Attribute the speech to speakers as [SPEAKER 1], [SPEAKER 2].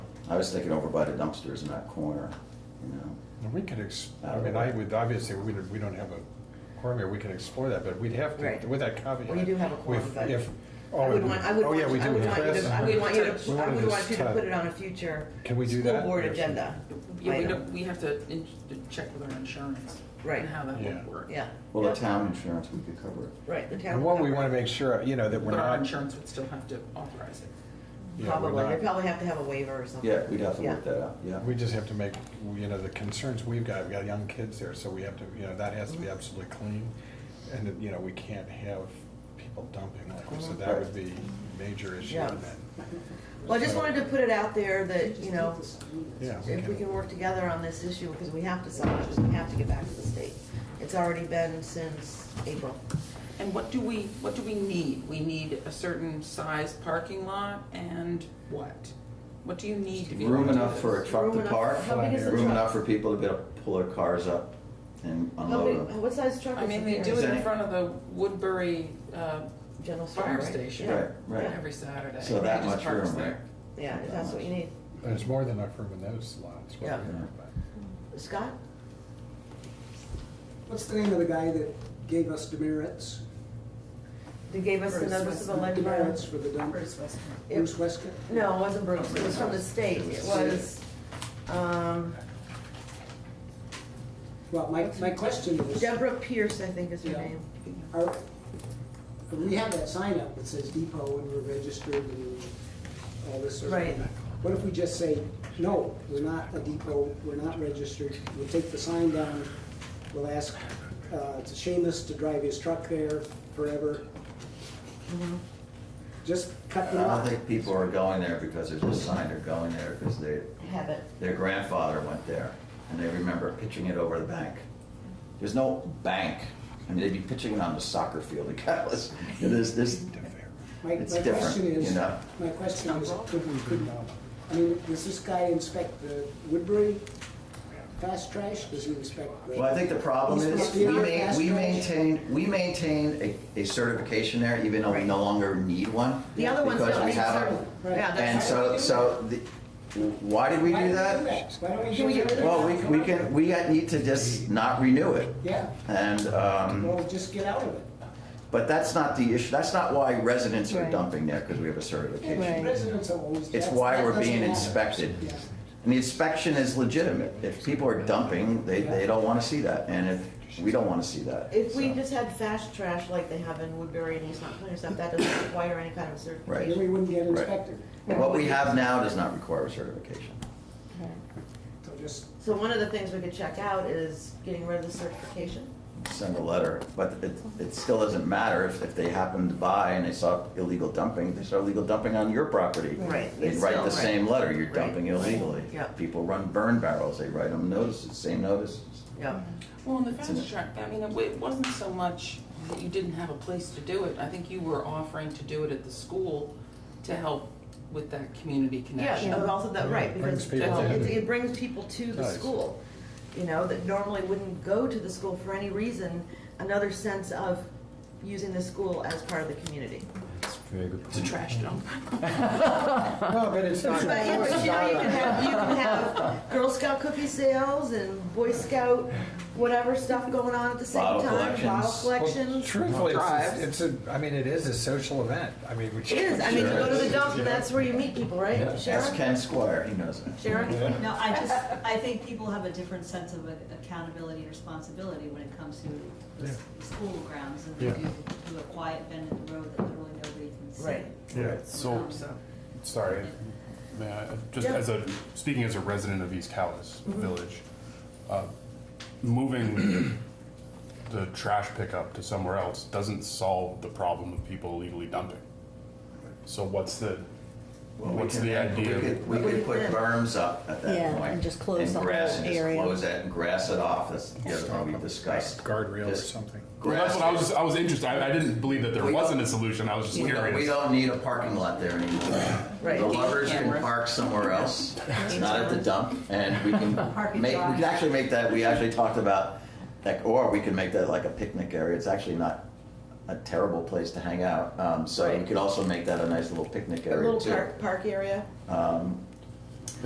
[SPEAKER 1] I was thinking over by the dumpsters in that corner, you know?
[SPEAKER 2] And we could, ex- I mean, I would, obviously, we don't, we don't have a quorum here, we can explore that, but we'd have
[SPEAKER 3] Right.
[SPEAKER 2] to, with that caveat.
[SPEAKER 3] Well, you do have a quorum,
[SPEAKER 2] if-
[SPEAKER 3] but
[SPEAKER 2] if-
[SPEAKER 3] I would want, I would
[SPEAKER 2] oh,
[SPEAKER 3] want,
[SPEAKER 2] yeah, we
[SPEAKER 3] I
[SPEAKER 2] do.
[SPEAKER 3] would want you
[SPEAKER 2] Chris.
[SPEAKER 3] to, I would want you
[SPEAKER 2] We
[SPEAKER 3] to, I
[SPEAKER 2] wanted
[SPEAKER 3] would
[SPEAKER 2] to
[SPEAKER 3] want you to
[SPEAKER 2] tie-
[SPEAKER 3] put it on a future.
[SPEAKER 2] Can we do that?
[SPEAKER 3] School board
[SPEAKER 2] Yes.
[SPEAKER 3] agenda.
[SPEAKER 4] Yeah, we
[SPEAKER 3] item.
[SPEAKER 4] don't, we have to in- to check with our insurance.
[SPEAKER 3] Right.
[SPEAKER 4] And how that
[SPEAKER 2] Yeah.
[SPEAKER 4] would work.
[SPEAKER 3] Yeah,
[SPEAKER 1] Well, the town insurance, we could cover it.
[SPEAKER 3] right, the town.
[SPEAKER 2] And what we want to make sure, you know, that we're
[SPEAKER 4] But our
[SPEAKER 2] not.
[SPEAKER 4] insurance would still have to authorize it.
[SPEAKER 2] yeah, we're
[SPEAKER 3] Probably, they
[SPEAKER 2] not-
[SPEAKER 3] probably have to have a waiver or something.
[SPEAKER 1] Yeah, we'd have to
[SPEAKER 3] Yeah.
[SPEAKER 1] work that out, yeah.
[SPEAKER 2] We just have to make, you know, the concerns we've got, we've got young kids there, so we have to, you know, that has to be absolutely clean. And, you know, we can't have people dumping like this, so that would be a major issue.
[SPEAKER 3] Yeah.
[SPEAKER 2] and then-
[SPEAKER 3] Well, I just wanted to put it out there that, you know,
[SPEAKER 2] Yeah.
[SPEAKER 3] if we can work together on this issue, because we have to solve it, we have to get back to the state. It's already been since April.
[SPEAKER 4] And what do we, what do we need? We need a certain size parking lot and what? What do you need to be able to
[SPEAKER 1] Room
[SPEAKER 4] do
[SPEAKER 1] enough for a
[SPEAKER 4] this?
[SPEAKER 1] truck
[SPEAKER 3] Room
[SPEAKER 1] to
[SPEAKER 3] enough-
[SPEAKER 1] park,
[SPEAKER 3] How big is the
[SPEAKER 1] room
[SPEAKER 3] truck?
[SPEAKER 1] enough for people to be able to pull their cars up and
[SPEAKER 3] How big,
[SPEAKER 1] unload them.
[SPEAKER 3] what size truck
[SPEAKER 4] I
[SPEAKER 3] is
[SPEAKER 4] mean, they
[SPEAKER 3] it
[SPEAKER 4] do
[SPEAKER 3] here?
[SPEAKER 4] it in front of the Woodbury uh,
[SPEAKER 3] General store,
[SPEAKER 4] Fire
[SPEAKER 3] right?
[SPEAKER 4] Station.
[SPEAKER 3] Yeah.
[SPEAKER 1] Right, right.
[SPEAKER 4] every Saturday.
[SPEAKER 1] So that
[SPEAKER 4] They just
[SPEAKER 1] much
[SPEAKER 4] parks
[SPEAKER 1] room,
[SPEAKER 4] there.
[SPEAKER 3] Yeah, if that's what you need.
[SPEAKER 2] There's more than enough room in those slots.
[SPEAKER 3] Yeah.
[SPEAKER 2] but-
[SPEAKER 3] Scott?
[SPEAKER 5] What's the name of the guy that gave us demerits?
[SPEAKER 3] They gave us the
[SPEAKER 6] Bruce
[SPEAKER 3] notice of alleged
[SPEAKER 5] Demerits
[SPEAKER 3] violence.
[SPEAKER 5] for the dump?
[SPEAKER 6] Bruce Westbrook.
[SPEAKER 3] It-
[SPEAKER 5] Bruce Westcott?
[SPEAKER 3] No, it wasn't Bruce, it was from the state,
[SPEAKER 1] It was
[SPEAKER 3] it
[SPEAKER 1] the
[SPEAKER 3] was, um,
[SPEAKER 5] Well, my, my question is, are,
[SPEAKER 3] Deborah Pierce, I think is her
[SPEAKER 5] Yeah.
[SPEAKER 3] name.
[SPEAKER 5] we have that sign up that says depot and we're registered and all this sort of
[SPEAKER 3] Right.
[SPEAKER 5] thing. What if we just say, no, we're not a depot, we're not registered, we'll take the sign down, we'll ask uh, Seamus to drive his truck there forever?
[SPEAKER 3] Mm-hmm.
[SPEAKER 5] Just cut
[SPEAKER 1] I
[SPEAKER 5] them
[SPEAKER 1] don't
[SPEAKER 5] off.
[SPEAKER 1] think people are going there because there's a sign they're going there because they,
[SPEAKER 3] Habit.
[SPEAKER 1] their grandfather went there and they remember pitching it over the bank. There's no bank. I mean, they'd be pitching it on the soccer field in Callis. There's, there's,
[SPEAKER 5] My,
[SPEAKER 1] It's
[SPEAKER 5] my question
[SPEAKER 1] different, you
[SPEAKER 5] is,
[SPEAKER 1] know.
[SPEAKER 5] my question is, could we, could, I mean, does this guy inspect the Woodbury fast trash? Does he inspect the?
[SPEAKER 1] Well, I think the problem
[SPEAKER 5] He's
[SPEAKER 1] is,
[SPEAKER 5] supposed to
[SPEAKER 1] we
[SPEAKER 5] be on
[SPEAKER 1] ma-
[SPEAKER 5] fast
[SPEAKER 1] we
[SPEAKER 5] track.
[SPEAKER 1] maintain, we maintain a, a certification there, even though we no longer need one.
[SPEAKER 3] The other ones
[SPEAKER 1] because
[SPEAKER 3] don't
[SPEAKER 1] we
[SPEAKER 3] need
[SPEAKER 1] have a-
[SPEAKER 3] certain- yeah, that's
[SPEAKER 1] And so,
[SPEAKER 3] right.
[SPEAKER 1] so, the- why did we
[SPEAKER 5] Why
[SPEAKER 1] do
[SPEAKER 5] do
[SPEAKER 1] that?
[SPEAKER 5] Why don't we
[SPEAKER 3] Can we
[SPEAKER 5] just-
[SPEAKER 3] get rid of
[SPEAKER 1] Well, we, we can, we got- need to just not renew it.
[SPEAKER 5] Yeah,
[SPEAKER 1] And, um,
[SPEAKER 5] well, just get out of it.
[SPEAKER 1] but that's not the issue, that's not why residents are
[SPEAKER 3] Right.
[SPEAKER 1] dumping there, because we have a
[SPEAKER 5] And
[SPEAKER 1] certification.
[SPEAKER 3] Right.
[SPEAKER 5] Residents are always.
[SPEAKER 1] It's
[SPEAKER 5] that's-
[SPEAKER 1] why
[SPEAKER 5] that
[SPEAKER 1] we're being
[SPEAKER 5] doesn't matter.
[SPEAKER 1] inspected.
[SPEAKER 5] Yeah.
[SPEAKER 1] And the inspection is legitimate. If people are dumping, they, they don't want to see that, and if, we don't want to see that.
[SPEAKER 3] If we
[SPEAKER 1] So-
[SPEAKER 3] just had fast trash like they have in Woodbury and East Mount Clear and stuff, that doesn't require any kind of
[SPEAKER 1] Right.
[SPEAKER 3] certification.
[SPEAKER 5] Then we wouldn't get
[SPEAKER 1] Right.
[SPEAKER 5] inspected.
[SPEAKER 1] What we have now does not require a certification.
[SPEAKER 5] So just,
[SPEAKER 3] So one of the things we could check out is getting rid of the certification.
[SPEAKER 1] Send a letter, but it, it still doesn't matter if, if they happen to buy and they saw illegal dumping, they saw illegal dumping on your property.
[SPEAKER 3] Right,
[SPEAKER 1] They
[SPEAKER 3] it's
[SPEAKER 1] write the
[SPEAKER 3] still- right.
[SPEAKER 1] same letter, you're
[SPEAKER 3] Right,
[SPEAKER 1] dumping
[SPEAKER 3] right,
[SPEAKER 1] illegally.
[SPEAKER 3] yeah.
[SPEAKER 1] People run burn barrels, they write them notices, same notices.
[SPEAKER 3] Yeah.
[SPEAKER 4] Well, in the
[SPEAKER 1] It's in
[SPEAKER 4] fast
[SPEAKER 1] it.
[SPEAKER 4] track, I mean, it wa- it wasn't so much that you didn't have a place to do it. I think you were offering to do it at the school to help with that community
[SPEAKER 3] Yeah,
[SPEAKER 4] connection.
[SPEAKER 3] you know, but also that, right,
[SPEAKER 2] Yeah,
[SPEAKER 3] because
[SPEAKER 2] brings people
[SPEAKER 3] it,
[SPEAKER 2] in.
[SPEAKER 3] it brings people to the
[SPEAKER 2] Nice.
[SPEAKER 3] school, you know, that normally wouldn't go to the school for any reason, another sense of using the school as part of the community.
[SPEAKER 4] It's a trash dump.
[SPEAKER 2] No, but it's not.
[SPEAKER 3] But, yeah, but you know, you can have, you can have Girl Scout cookie sales and Boy Scout whatever stuff going on at the same
[SPEAKER 1] Bottle
[SPEAKER 3] time, bottle
[SPEAKER 1] collections.
[SPEAKER 2] Well,
[SPEAKER 3] collections.
[SPEAKER 2] Truthfully, it's,
[SPEAKER 4] Drives.
[SPEAKER 2] it's a, I mean, it is a social event. I mean, which.
[SPEAKER 3] It is, I mean, you go to the dump and that's where you meet people, right?
[SPEAKER 1] Ask
[SPEAKER 3] Sharon?
[SPEAKER 1] Ken Squire, he knows that.
[SPEAKER 3] Sharon?
[SPEAKER 6] No, I just, I think people have a different sense of accountability and responsibility when it comes to the s- school grounds and they
[SPEAKER 2] Yeah.
[SPEAKER 6] do do a quiet bend in the road that literally nobody can see.
[SPEAKER 3] Right.
[SPEAKER 7] Yeah, so,
[SPEAKER 6] Um,
[SPEAKER 7] sorry, may I, just
[SPEAKER 3] Yeah.
[SPEAKER 7] as a, speaking as a resident of East Callis Village, uh, moving the trash pickup to somewhere else doesn't solve the problem of people illegally dumping. So what's the,
[SPEAKER 1] Well, we
[SPEAKER 7] what's
[SPEAKER 1] can-
[SPEAKER 7] the idea?
[SPEAKER 1] We could, we could put berms up at that
[SPEAKER 8] Yeah,
[SPEAKER 1] point.
[SPEAKER 8] and just close the whole
[SPEAKER 1] grass and just
[SPEAKER 8] area.
[SPEAKER 1] Close that and grass it off, that's the other thing we discussed.
[SPEAKER 2] Guardrail or
[SPEAKER 1] Just
[SPEAKER 2] something.
[SPEAKER 7] Well, that's what I was,
[SPEAKER 1] grass-
[SPEAKER 7] I was interested, I, I didn't believe that there
[SPEAKER 1] We don't-
[SPEAKER 7] wasn't a solution, I was just
[SPEAKER 1] We don't, we
[SPEAKER 7] curious.
[SPEAKER 1] don't need a parking lot there anymore.
[SPEAKER 3] Right.
[SPEAKER 1] The lovers can
[SPEAKER 4] Camera.
[SPEAKER 1] park somewhere else, not at the dump, and we can
[SPEAKER 6] Park and
[SPEAKER 1] make, we
[SPEAKER 6] drive.
[SPEAKER 1] can actually make that, we actually talked about, like, or we can make that like a picnic area, it's actually not a terrible place to hang out, um, so you
[SPEAKER 3] Right.
[SPEAKER 1] could also make that a nice little picnic
[SPEAKER 3] A
[SPEAKER 1] area
[SPEAKER 3] little
[SPEAKER 1] too.
[SPEAKER 3] park, park area,
[SPEAKER 1] Um,